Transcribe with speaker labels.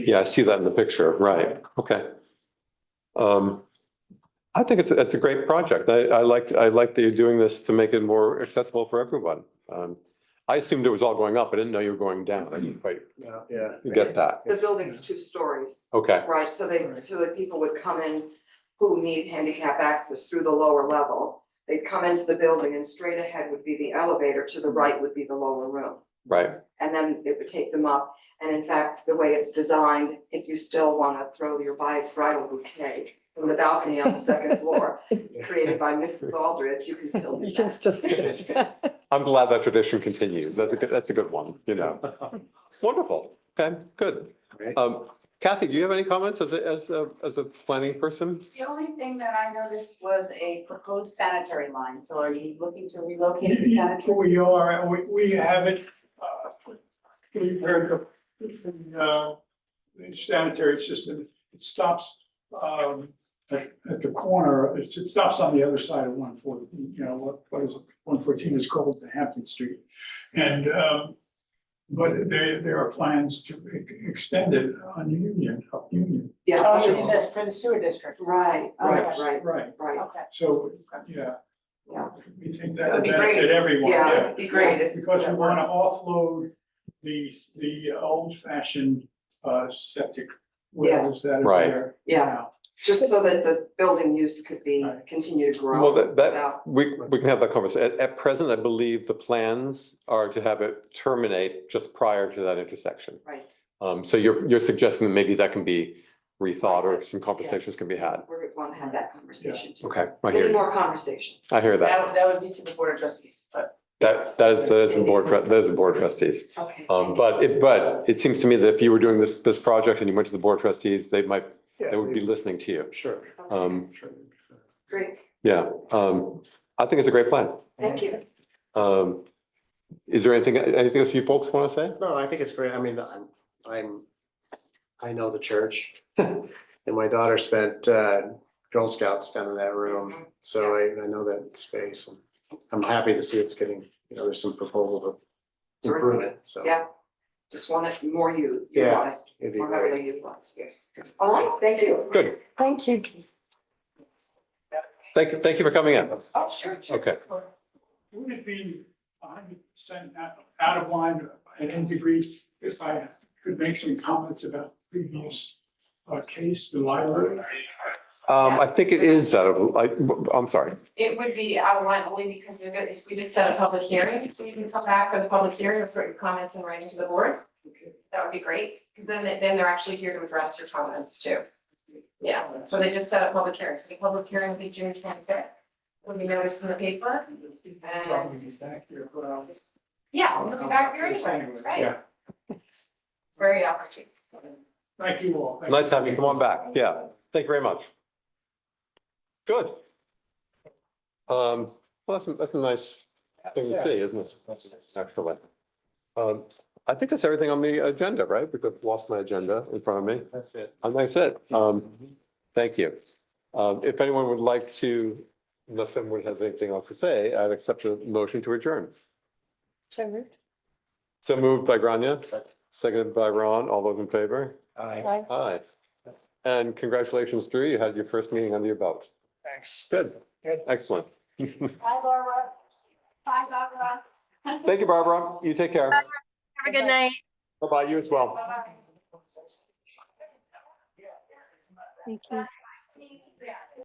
Speaker 1: Yeah, I see that in the picture, right, okay. Um, I think it's, it's a great project. I, I like, I like that you're doing this to make it more accessible for everyone. Um, I assumed it was all going up, I didn't know you were going down, I didn't quite
Speaker 2: Yeah, yeah.
Speaker 1: get that,
Speaker 3: The building's two stories,
Speaker 1: okay,
Speaker 3: right, so they, so that people would come in who need handicap access through the lower level. They'd come into the building and straight ahead would be the elevator, to the right would be the lower room.
Speaker 1: right,
Speaker 3: And then it would take them up, and in fact, the way it's designed, if you still wanna throw your bi- bridal bouquet from the balcony on the second floor, created by Mrs. Aldrich, you can still do
Speaker 4: You can
Speaker 3: that.
Speaker 4: still fit it.
Speaker 1: I'm glad that tradition continues, that's a, good- that's a good one, you know. Wonderful, okay, good.
Speaker 2: Great.
Speaker 1: Um, Kathy, do you have any comments as a, as a, as a planning person?
Speaker 5: The only thing that I noticed was a proposed sanitary line, so are you looking to relocate the sanitary?
Speaker 6: We are, we, we have it, uh, we've heard the, uh, the sanitary system, it stops, um, at, at the corner, it it stops on the other side of one fourteen, you know, what, what is, one fourteen is called the Hampton Street. And, um, but there, there are plans to e- extend it on Union, up Union.
Speaker 3: Yeah,
Speaker 5: Oh,
Speaker 3: which
Speaker 5: you
Speaker 3: is-
Speaker 5: said for the sewer district,
Speaker 3: right, right, Oh, right,
Speaker 6: Right,
Speaker 3: right,
Speaker 5: okay.
Speaker 6: so, yeah.
Speaker 3: Yeah.
Speaker 6: We think that
Speaker 3: That'd
Speaker 6: would
Speaker 3: be great.
Speaker 6: benefit everyone,
Speaker 3: Yeah,
Speaker 6: yeah.
Speaker 3: it'd be great
Speaker 6: Because we wanna offload the, the old fashioned, uh, septic wells that are
Speaker 1: Right.
Speaker 6: there.
Speaker 3: yeah.
Speaker 6: now.
Speaker 3: Just so that the building use could be,
Speaker 6: Right.
Speaker 3: continue to grow.
Speaker 1: Well, that, that,
Speaker 3: without-
Speaker 1: we, we can have that conversation. At, at present, I believe the plans are to have it terminate just prior to that intersection.
Speaker 3: Right.
Speaker 1: Um, so you're, you're suggesting that maybe that can be rethought or some conversations
Speaker 3: Yes.
Speaker 1: can be had.
Speaker 3: We're gonna have that conversation too.
Speaker 1: Okay, I hear
Speaker 3: Many
Speaker 1: you.
Speaker 3: more conversations.
Speaker 1: I hear
Speaker 5: That
Speaker 1: that.
Speaker 5: would, that would be to the board of trustees, but.
Speaker 1: That, that is, that is the board, that is the board trustees.
Speaker 3: Okay.
Speaker 1: Um, but it, but it seems to me that if you were doing this, this project and you went to the board trustees, they might, they would be listening to you.
Speaker 2: Sure.
Speaker 1: Um,
Speaker 3: Great,
Speaker 1: yeah, um, I think it's a great plan.
Speaker 3: thank you.
Speaker 1: Um, is there anything, anything else you folks want to say?
Speaker 2: No, I think it's great. I mean, I'm, I'm, I know the church. And my daughter spent uh, Girl Scouts down in that
Speaker 3: Mm-hmm.
Speaker 2: room, so I, I know that space. and I'm happy to see it's getting, you know, there's some proposal to improve it, so.
Speaker 3: Yeah. Just want it more u-
Speaker 2: Yeah,
Speaker 3: utilized,
Speaker 2: it'd be
Speaker 3: more
Speaker 2: great.
Speaker 3: heavily utilized. Yes. All right, thank you.
Speaker 1: Good.
Speaker 4: Thank you.
Speaker 1: Thank, thank you for coming in.
Speaker 3: Oh, sure, sure.
Speaker 1: Okay,
Speaker 6: Would it be hundred percent out out of line at any degree if I could make some comments about previous uh, case, the library?
Speaker 1: um, I think it is out of, I, I'm sorry.
Speaker 7: It would be outlined only because they're gonna- if we just set a public hearing, so you can come back for the public hearing or put your comments in writing to the board. That would be great, because then they- then they're actually here to address your comments too. Yeah, so they just set a public hearing, so the public hearing will be June twenty fifth. Will be noticed in the paper and,
Speaker 6: Probably back there, but, uh,
Speaker 7: yeah, we'll be back here anyway, right?
Speaker 2: Yeah.
Speaker 7: Very opportune.
Speaker 6: Thank you all. Thank
Speaker 1: Nice having you. Come on back. Yeah. Thank you very much. Good. Um, well, that's, a- that's a nice thing to see, isn't it? Excellent. Um, I think that's everything on the agenda, right? Because I've lost my agenda in front of me.
Speaker 2: That's it. Mm-hmm.
Speaker 1: And that's it. Um, thank you. Um, if anyone would like to, unless someone has anything else to say, I'd accept a motion to adjourn.
Speaker 4: So moved.
Speaker 1: So moved by Grania, seconded by Ron. All those in favor?
Speaker 4: Bye.
Speaker 1: Aye. And congratulations, Drew. You had your first meeting under your belt. Thanks. Good. Excellent.
Speaker 5: Hi, Laura. Hi, Barbara.
Speaker 1: Thank you, Barbara. You take care.
Speaker 7: Have a good night.
Speaker 1: Bye-bye. You as well.
Speaker 7: Bye-bye.
Speaker 4: Thank you.